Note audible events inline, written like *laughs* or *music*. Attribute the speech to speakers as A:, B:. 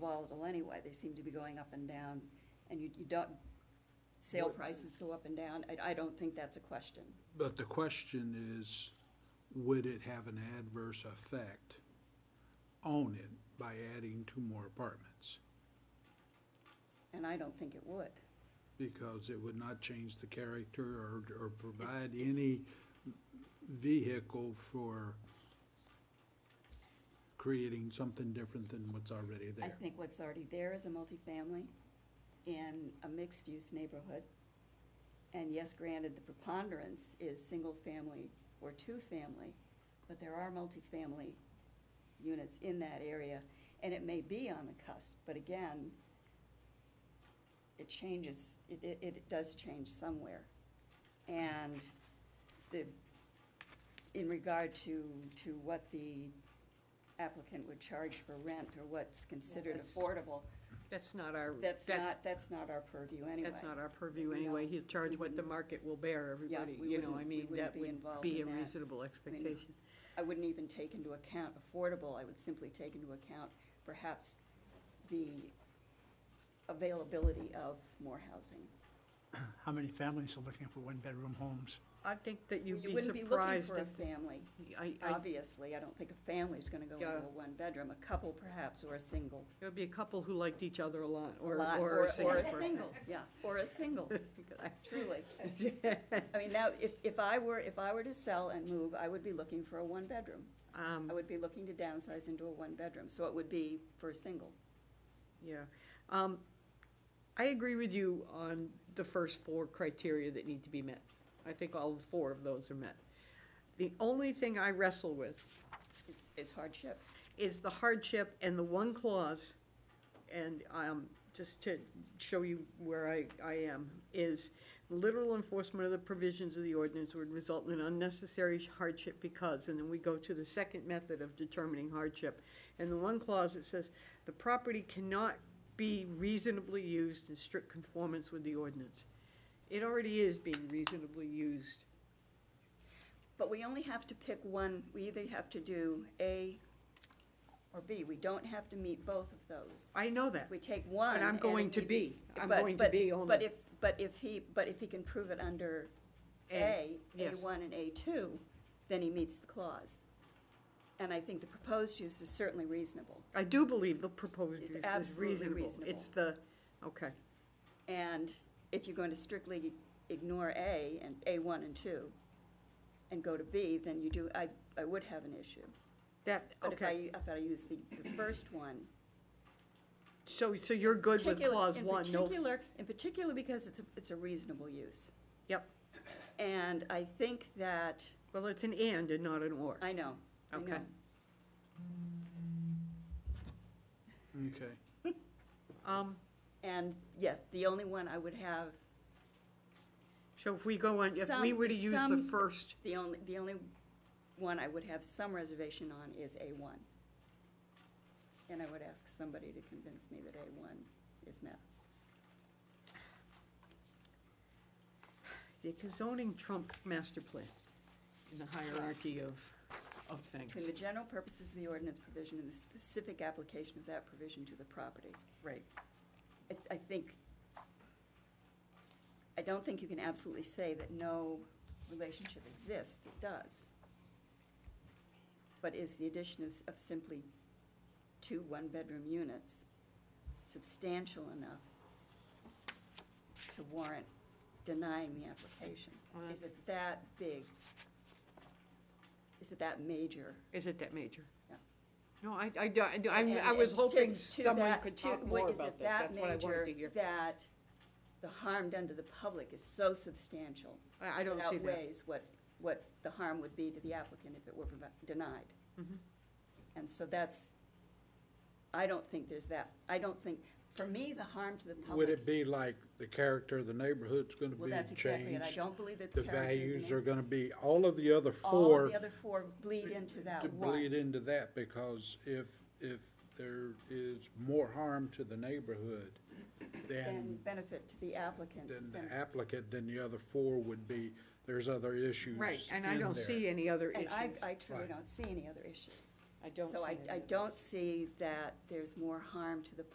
A: volatile anyway. They seem to be going up and down, and you, you don't, sale prices go up and down. I, I don't think that's a question.
B: But the question is, would it have an adverse effect on it by adding two more apartments?
A: And I don't think it would.
B: Because it would not change the character or, or provide any vehicle for creating something different than what's already
A: I
B: there.
A: think what's already there is a multifamily in a mixed-use neighborhood. And yes, granted, the preponderance is single-family or two-family, but there are multifamily units in that area, and it may be on the cusp, but again, it changes, it, it, it does change somewhere. And the, in regard to, to what the applicant would charge for rent or what's considered
C: that's-
A: affordable,
C: That's not our,
A: that's
C: that's,
A: not, that's not our purview anyway. Mm-hmm.
C: that's not our purview anyway. He'll charge what the market will bear, everybody,
A: we
C: you know, I
A: wouldn't- we
C: mean,
A: wouldn't
C: that
A: be
C: would
A: involved
C: be a
A: in that.
C: reasonable expectation.
A: I wouldn't even take into account affordable, I would simply take into account perhaps the availability of more housing.
D: How many families are looking for one-bedroom homes?
C: I think that you'd
A: You
C: be
A: wouldn't be looking
C: surprised
A: for a
C: if,
A: family,
C: I, I,
A: obviously, I don't think a family's gonna go into
C: Yeah.
A: a one-bedroom, a couple perhaps, or a single.
C: there would be a couple who liked each other a lot,
A: A
C: or,
A: lot,
C: or a single person.
A: Yeah,
C: *laughs*
A: or a single,
C: I-
A: truly. I mean, now, if, if I were, if I were to sell and move, I would be looking for a one-bedroom.
C: *laughs* Um,
A: I would be looking to downsize into a one-bedroom, so it would be for a single.
C: yeah. Um, I agree with you on the first four criteria that need to be met. I think all four of those are met. The only thing I wrestle with
A: Is- Is hardship.
C: is the hardship and the one clause, and um, just to show you where I, I am, is literal enforcement of the provisions of the ordinance would result in an unnecessary hardship because, and then we go to the second method of determining hardship. And the one clause, it says, the property cannot be reasonably used in strict conformance with the ordinance. It already is being reasonably used.
A: But we only have to pick one, we either have to do A or B. We don't have to meet both of those.
C: I know that.
A: We take one.
C: But I'm going
A: and
C: to
A: it's-
C: B. I'm
A: but-
C: going to
A: but-
C: B only.
A: But if, but if he, but if he can prove it under A,
C: A, yes.
A: A1 and A2, then he meets the clause. And I think the proposed use is certainly reasonable.
C: I do believe the proposed
A: It's
C: use is
A: absolutely
C: reasonable.
A: reasonable.
C: It's the, okay,
A: And if you're going to strictly ignore A and A1 and 2 and go to B, then you do, I, I would have an issue.
C: that,
A: But if I,
C: okay.
A: if I use the, the first one,
C: So, so you're good with
A: particular-
C: clause
A: in
C: one, no?
A: particular- In particular, because it's, a it's a reasonable use.
C: Yep,
A: And I think that,
C: well, it's an and and not an or.
A: I know, I
C: Okay.
A: know.
B: Okay.
C: Um,
A: And yes, the only one I would have,
C: so if we go on, if we
A: Some-
C: were to use the
A: some-
C: first,
A: the only, the only one I would have some reservation on is A1. And I would ask somebody to convince me that A1 is met.
C: the zoning trumps master plan in the hierarchy of, of things,
A: Between the general purposes of the ordinance provision and the specific application of that provision to the property.
C: right?
A: I, I think, I don't think you can absolutely say that no relationship exists, it does. But is the addition of, of simply two one-bedroom units substantial enough to warrant denying the application?
C: Well,
A: Is
C: that's-
A: it that big? Is it that major?
C: Is it that major?
A: Yeah.
C: No, I, I, do- I, do- I'm-
A: And-
C: I was
A: and to-
C: hoping
A: to
C: someone
A: that-
C: could
A: to-
C: talk
A: what
C: more
A: is it
C: about this,
A: that
C: that's what I wanted to
A: major
C: hear.
A: That the harm done to the public is so substantial.
C: I, I don't see
A: It
C: that.
A: outweighs what, what the harm would be to the applicant if it were provi- denied.
C: Mm-hmm.
A: And so that's, I don't think there's that, I don't think, for me, the harm to the public.
B: Would it be like the character of the neighborhood's gonna
A: Well,
B: be
A: that's exactly it, I
B: changed?
A: don't believe that
B: The
A: the character of the
B: values
A: name-
B: are gonna be, all of the other
A: All
B: four.
A: of the other four bleed into
B: to
A: that
B: bleed
A: one.
B: into that, because if, if there is more harm to the neighborhood than,
A: And benefit to the applicant.
B: than
A: then-
B: the applicant, then the other four would be, there's other issues
C: Right, and I
B: in
C: don't
B: there.
C: see any other
A: And
C: issues.
A: I, I truly
B: Right.
A: don't see any other issues.
C: I don't
A: So
C: see
A: I,
C: any
A: I
C: other
A: don't see that there's more harm to the